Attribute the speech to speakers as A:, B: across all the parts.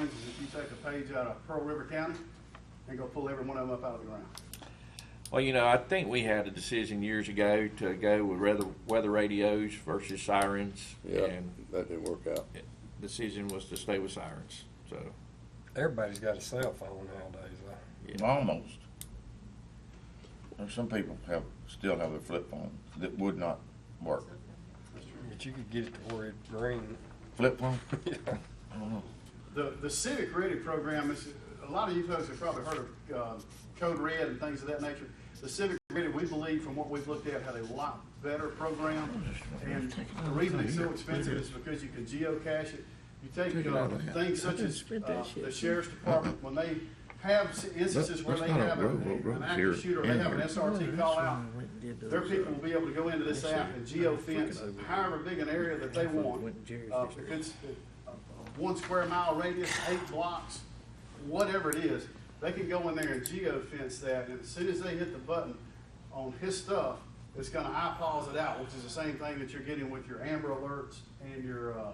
A: is if you take a page out of Pearl River County and go pull every one of them up out of the ground.
B: Well, you know, I think we had a decision years ago to go with weather, weather radios versus sirens.
C: Yeah,
B: And
C: that didn't work out.
B: the decision was to stay with sirens, so,
D: Everybody's got a cell phone nowadays. though.
B: Yeah.
E: Almost. There's some people have, still have their flip phone that would not work.
D: But you could get it to where it ring.
E: Flip phone?
D: Yeah.
E: I don't know.
A: The, the civic ready program is, a lot of you folks have probably heard of uh, Code Red and things of that nature. The civic ready, we believe from what we've looked at, had a lot better program. And the reason it's so expensive is because you can geocache it. You take uh, things such as uh, the sheriff's department, when they have s- instances where they
F: That's not a
A: have
F: road,
A: an
F: road,
A: an
F: road's
A: active
F: here
A: shooter, they
F: and
A: have an
F: here.
A: SRT call out, their people will be able to go into this app and geofence however big an area that they want. Uh, if it's a- a one square mile radius, eight blocks, whatever it is, they can go in there and geofence that, and as soon as they hit the button on his stuff, it's gonna eyeballs it out, which is the same thing that you're getting with your Amber Alerts and your, uh,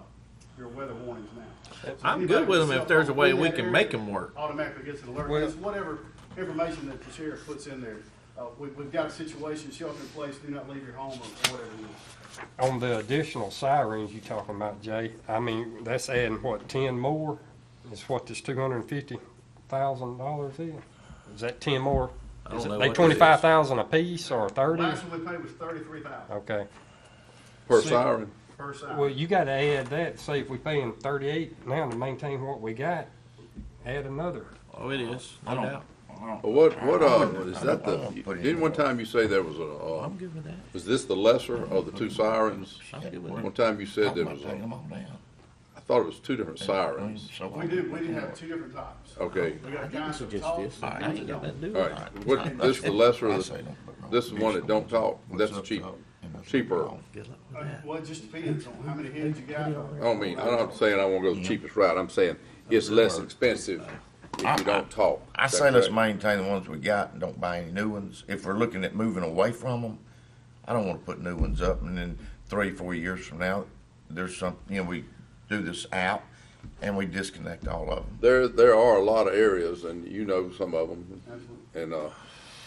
A: your weather warnings now. So
B: I'm
A: anybody
B: good with
A: with
B: them
A: cell
B: if there's a
A: phone
B: way
A: in
B: we
A: that
B: can
A: area
B: make them work.
A: Automatically gets an alert,
D: Well-
A: because whatever information that the sheriff puts in there, uh, we, we've got a situation, shelter in place, do not leave your home, or whatever it is.
D: On the additional sirens you talking about, Jay, I mean, that's adding what, ten more? Is what this two hundred and fifty thousand dollars is? Is that ten more?
B: I
D: Is
B: don't know what
D: it,
B: it
D: they
B: is.
D: twenty-five thousand apiece or thirty?
A: Last one we paid was thirty-three thousand
D: Okay.
C: Per
D: See-
C: siren,
A: per
D: Well,
A: side.
D: you gotta add that, say if we paying thirty-eight now to maintain what we got, add another.
B: Oh, it is,
E: I
B: no
E: don't,
B: doubt.
E: I don't.
C: Well, what,
E: I
C: what,
E: don't-
C: uh,
E: I
C: is
E: don't-
C: that
E: I
C: the,
E: don't put it in
C: didn't one
E: the-
C: time you say there was a, uh,
B: I'm good with that.
C: was this the lesser of the two sirens?
B: I'm good with
C: One
B: that.
C: time you said there
E: I'm
C: was,
E: gonna take
C: a-
E: 'em all down.
C: I thought it was two different sirens.
E: So
A: We do, we do have two different types.
D: Oh.
C: Okay,
A: We got
F: I
A: guys
F: think
A: that
F: it's just
A: talk. uh,
F: this.
A: guys
F: I
A: that
F: ain't got
A: don't.
F: nothing to do
C: all
F: with it.
C: right, what, this is the lesser of the, this is one that don't talk. That's cheap- cheaper.
F: Good luck
A: Uh,
F: with that.
A: Well, it just depends on how many heads you got.
C: I
D: Oh,
C: don't mean, I don't have to say I wanna go the cheapest route, I'm saying it's less expensive if you don't talk.
E: I
C: Is that
E: say let's
C: correct?
E: maintain the ones we got and don't buy any new ones. If we're looking at moving away from them, I don't wanna put new ones up and then three, four years from now, there's some, you know, we do this out and we disconnect all of them.
C: There, there are a lot of areas, and you know some of them,
A: Absolutely.
C: and, uh,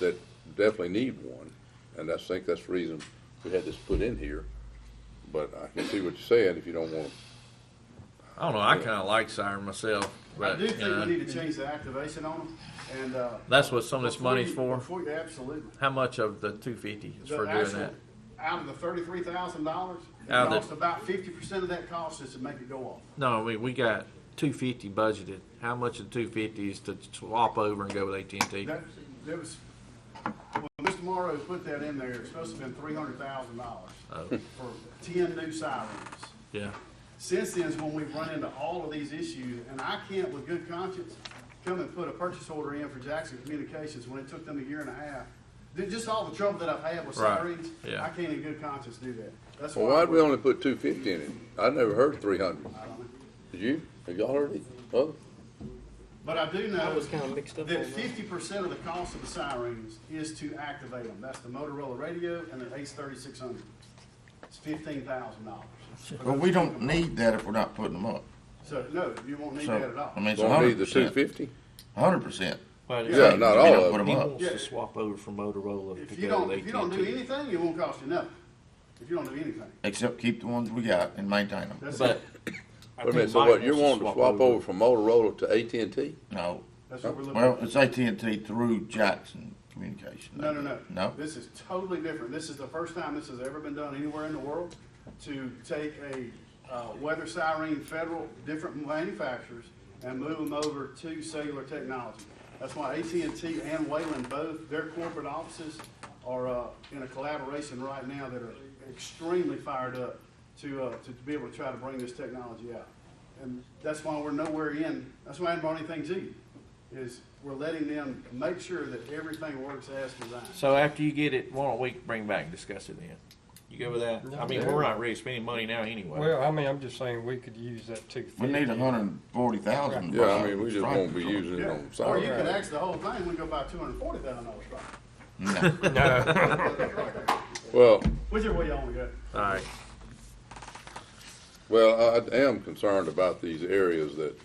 C: that definitely need one. And I think that's the reason we had this put in here, but I can see what you're saying, if you don't want,
B: I don't know, I kinda like siren myself,
A: I
B: but,
A: do
B: you
A: think we
B: know,
A: need to change the activation on them, and, uh.
B: that's what some of this
A: before
B: money's
A: you-
B: for.
A: Before you, absolutely.
B: How much of the two fifty is
A: The
B: for doing
A: actual-
B: that?
A: Out of the thirty-three thousand dollars, it
B: Out of the-
A: costs about fifty percent of that cost is to make it go off.
B: No, I mean, we got two fifty budgeted. How much of two fifty is to swap over and go with AT&T?
A: That, that was, when Mr. Morrow put that in there, it's supposed to have been three hundred thousand dollars
B: Oh,
A: for ten new sirens.
B: yeah.
A: Since then is when we've run into all of these issues, and I can't with good conscience come and put a purchase order in for Jackson Communications when it took them a year and a half. Ju- Just all the trouble that I've had with
B: Right,
A: sirens,
B: yeah.
A: I can't in good conscience do that. That's
C: well,
A: why.
C: why'd we only put two fifty in it? I never heard three hundred. Did you? Have y'all heard it? Oh,
A: But I do know
F: was kinda mixed up
A: that
F: on that.
A: fifty percent of the cost of the sirens is to activate them. That's the Motorola radio and the Ace thirty-six hundred. It's fifteen thousand dollars.
E: But we don't need that if we're not putting them up.
A: So, no, you won't need
E: So,
A: that at all.
E: I mean, it's
C: Don't need
E: hundred
C: the two
E: percent,
C: fifty?
E: hundred percent.
B: But
C: Yeah,
B: if
C: not
E: We
C: all
E: don't
C: of
E: put
C: them.
E: 'em
B: he
E: up.
B: wants to swap over from Motorola to
A: If you
B: go
A: don't,
B: with
A: if you don't do
B: AT&T.
A: anything, it won't cost you nothing. If you don't do anything.
E: Except keep the ones we got and maintain them.
A: That's,
B: But. I
C: Wait a
B: think
C: minute, so
B: Mike
C: what, you're
B: wants
C: wanting to swap over from Motorola to AT&T?
E: No,
A: that's what we're looking
E: well,
A: at.
E: it's AT&T through Jackson Communication.
A: No, no, no.
E: No?
A: This is totally different. This is the first time this has ever been done anywhere in the world to take a, uh, weather siren, federal, different manufacturers and move them over to cellular technology. That's why AT&T and Wayland both, their corporate offices are, uh, in a collaboration right now that are extremely fired up to, uh, to be able to try to bring this technology out. And that's why we're nowhere in, that's why I haven't brought anything to you, is we're letting them make sure that everything works as designed.
B: So after you get it, why don't we bring back and discuss it then? You go with that? I mean, we're not really spending money now anyway.
D: Well, I mean, I'm just saying we could use that two fifty.
E: We need a hundred and forty thousand.
C: Yeah, I mean, we just won't be using it
A: Yeah,
C: on
A: or you
C: sirens.
A: could ask the whole thing, we go buy two hundred forty thousand dollars truck.
E: No,
C: Well,
A: Whichever way y'all wanna go.
B: All right.
C: Well, I I am concerned about these areas that